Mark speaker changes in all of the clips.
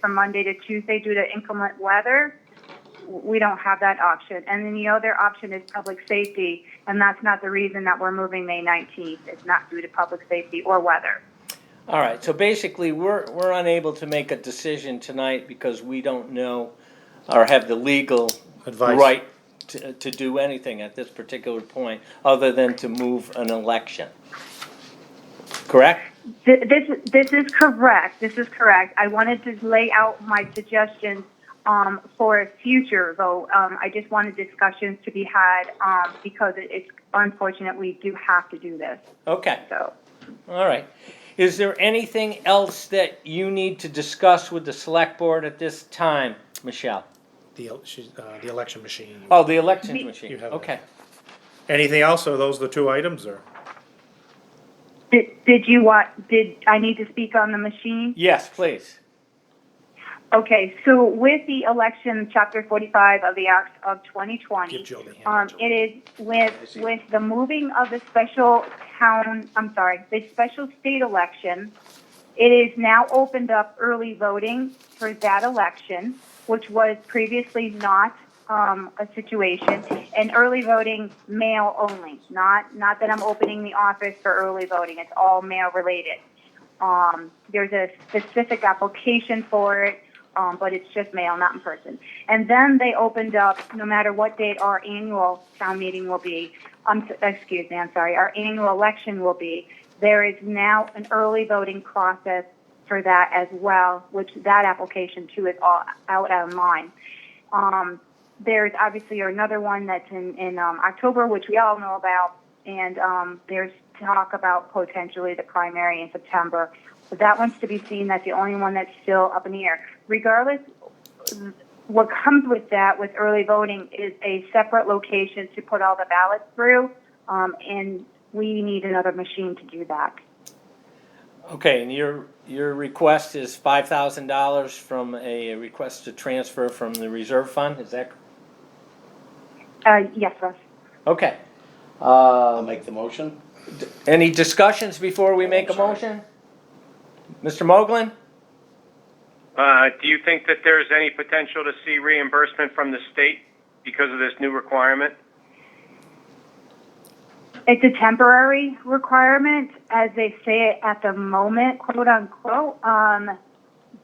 Speaker 1: from Monday to Tuesday due to inclement weather, we don't have that option. And then the other option is public safety, and that's not the reason that we're moving May 19th. It's not due to public safety or weather.
Speaker 2: All right, so basically, we're, we're unable to make a decision tonight because we don't know or have the legal
Speaker 3: Advice.
Speaker 2: right to, to do anything at this particular point, other than to move an election. Correct?
Speaker 1: Th- This, this is correct. This is correct. I wanted to lay out my suggestions um, for future, though. Um, I just wanted discussions to be had um, because it- it's unfortunate we do have to do this.
Speaker 2: Okay,
Speaker 1: So,
Speaker 2: all right. Is there anything else that you need to discuss with the select board at this time, Michelle?
Speaker 3: The, el- she's, uh, the election machine.
Speaker 2: Oh, the election
Speaker 1: We-
Speaker 2: machine,
Speaker 3: You have it.
Speaker 2: okay.
Speaker 3: Anything else, or are those the two items, or?
Speaker 1: did, did you want? Did I need to speak on the machine?
Speaker 2: Yes, please.
Speaker 1: Okay, so with the election, Chapter 45 of the Act of 2020,
Speaker 3: Give Jill the hand,
Speaker 1: um,
Speaker 3: Jill.
Speaker 1: it is with,
Speaker 3: see.
Speaker 1: with the moving of the special town, I'm sorry, the special state election, it is now opened up early voting for that election, which was previously not um, a situation, and early voting mail only. Not not that I'm opening the office for early voting. It's all mail related. Um, there's a specific application for it, um, but it's just mail, not in person. And then they opened up, no matter what date our annual town meeting will be, um, excuse me, I'm sorry, our annual election will be, there is now an early voting process for that as well, which that application too is all out online. Um, there's obviously another one that's in, in um, October, which we all know about, and um, there's talk about potentially the primary in September. But that one's to be seen. That's the only one that's still up in the air. Regardless, what comes with that, with early voting, is a separate location to put all the ballots through, um, and we need another machine to do that.
Speaker 2: Okay, and your, your request is five thousand dollars from a request to transfer from the reserve fund, is that?
Speaker 1: Uh, yes, Russ.
Speaker 2: Okay.
Speaker 4: I'll
Speaker 2: Uh,
Speaker 4: make the motion.
Speaker 2: any discussions before we make a
Speaker 4: Sorry.
Speaker 2: motion? Mr. Moglen?
Speaker 5: Uh, Do you think that there's any potential to see reimbursement from the state because of this new requirement?
Speaker 1: It's a temporary requirement, as they say it at the moment, quote unquote. Um,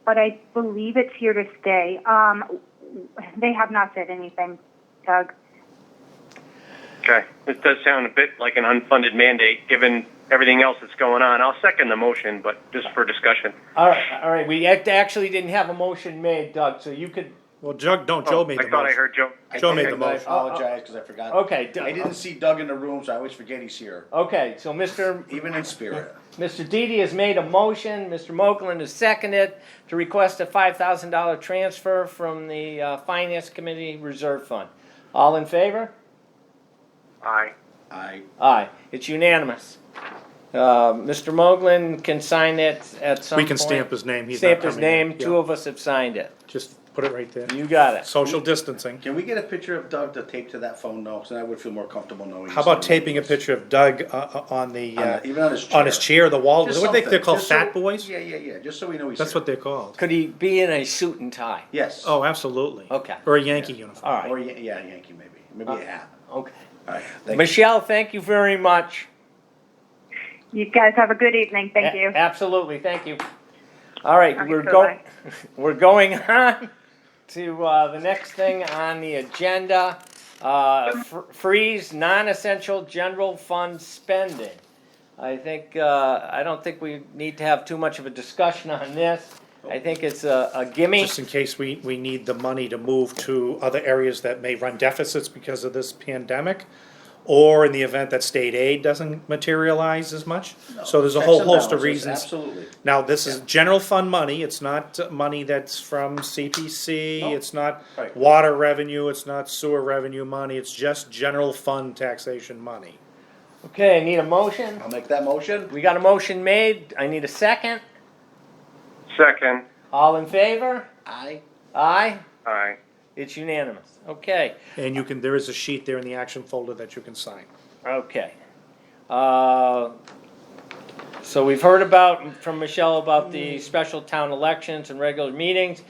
Speaker 1: but I believe it's here to stay. Um, they have not said anything, Doug.
Speaker 5: Okay, this does sound a bit like an unfunded mandate, given everything else that's going on. I'll second the motion, but just for discussion.
Speaker 2: All right, all right, we act- actually didn't have a motion made, Doug, so you could,
Speaker 3: Well, Jug, don't, Joe made the
Speaker 5: Oh, I thought I
Speaker 3: motion.
Speaker 5: heard Joe.
Speaker 3: Joe made
Speaker 5: Okay.
Speaker 3: the motion.
Speaker 4: I apologize because I forgot.
Speaker 2: okay, Doug.
Speaker 4: I didn't see Doug in the room, so I always forget he's here,
Speaker 2: Okay, so Mr.
Speaker 4: even in spirit.
Speaker 2: Mr. Didi has made a motion, Mr. Moglen has seconded to request a five thousand dollar transfer from the, uh, Finance Committee Reserve Fund. All in favor?
Speaker 5: Aye.
Speaker 4: I,
Speaker 2: Aye, it's unanimous. Uh, Mr. Moglen can sign it at some
Speaker 3: We
Speaker 2: point.
Speaker 3: can stamp his name, he's not
Speaker 2: Stamp his
Speaker 3: coming in.
Speaker 2: name, two
Speaker 3: Yeah.
Speaker 2: of us have signed it.
Speaker 3: Just put it right there.
Speaker 2: You got it.
Speaker 3: Social distancing.
Speaker 4: can we get a picture of Doug to tape to that phone though? Because then I would feel more comfortable knowing.
Speaker 3: How about taping a picture of Doug uh, uh, on the,
Speaker 4: On
Speaker 3: uh,
Speaker 4: the- even on his
Speaker 3: on his
Speaker 4: chair.
Speaker 3: chair, the wall,
Speaker 4: Just
Speaker 3: what they, they're
Speaker 4: something,
Speaker 3: called,
Speaker 4: just so-
Speaker 3: fat boys?
Speaker 4: Yeah, yeah, yeah, just so we know he's here.
Speaker 3: That's what they're called.
Speaker 2: Could he be in a suit and tie?
Speaker 4: Yes.
Speaker 3: Oh, absolutely.
Speaker 2: Okay.
Speaker 3: Or a Yankee uniform.
Speaker 2: All
Speaker 4: Or,
Speaker 2: right,
Speaker 4: Yan- yeah, Yankee maybe, maybe a hat.
Speaker 2: okay.
Speaker 4: All right, thank you.
Speaker 2: Michelle, thank you very much.
Speaker 1: You guys have a good evening. Thank
Speaker 2: A-
Speaker 1: you.
Speaker 2: Absolutely, thank you. All right,
Speaker 1: Okay,
Speaker 2: we're
Speaker 1: so
Speaker 2: going,
Speaker 1: bye.
Speaker 2: we're going on to uh, the next thing on the agenda. uh, fr- Freeze non-essential general fund spending. I think, uh, I don't think we need to have too much of a discussion on this. I think it's a a gimme.
Speaker 3: Just in case we, we need the money to move to other areas that may run deficits because of this pandemic. Or in the event that state aid doesn't materialize as much. So there's a
Speaker 4: Checks
Speaker 3: whole
Speaker 4: and
Speaker 3: host of
Speaker 4: balances,
Speaker 3: reasons.
Speaker 4: Absolutely.
Speaker 3: Now, this is general fund money, it's not uh, money that's from CPC,
Speaker 4: No.
Speaker 3: it's not
Speaker 4: Right.
Speaker 3: water revenue, it's not sewer revenue money, it's just general fund taxation money.
Speaker 2: Okay, I need a motion.
Speaker 4: I'll make that motion.
Speaker 2: We got a motion made. I need a second.
Speaker 5: Second.
Speaker 2: All in favor?
Speaker 4: I,
Speaker 2: Aye?
Speaker 5: Aye.
Speaker 2: It's unanimous. Okay.
Speaker 3: And you can, there is a sheet there in the action folder that you can sign.
Speaker 2: Okay. Uh, So we've heard about, from Michelle, about the special town elections and regular meetings.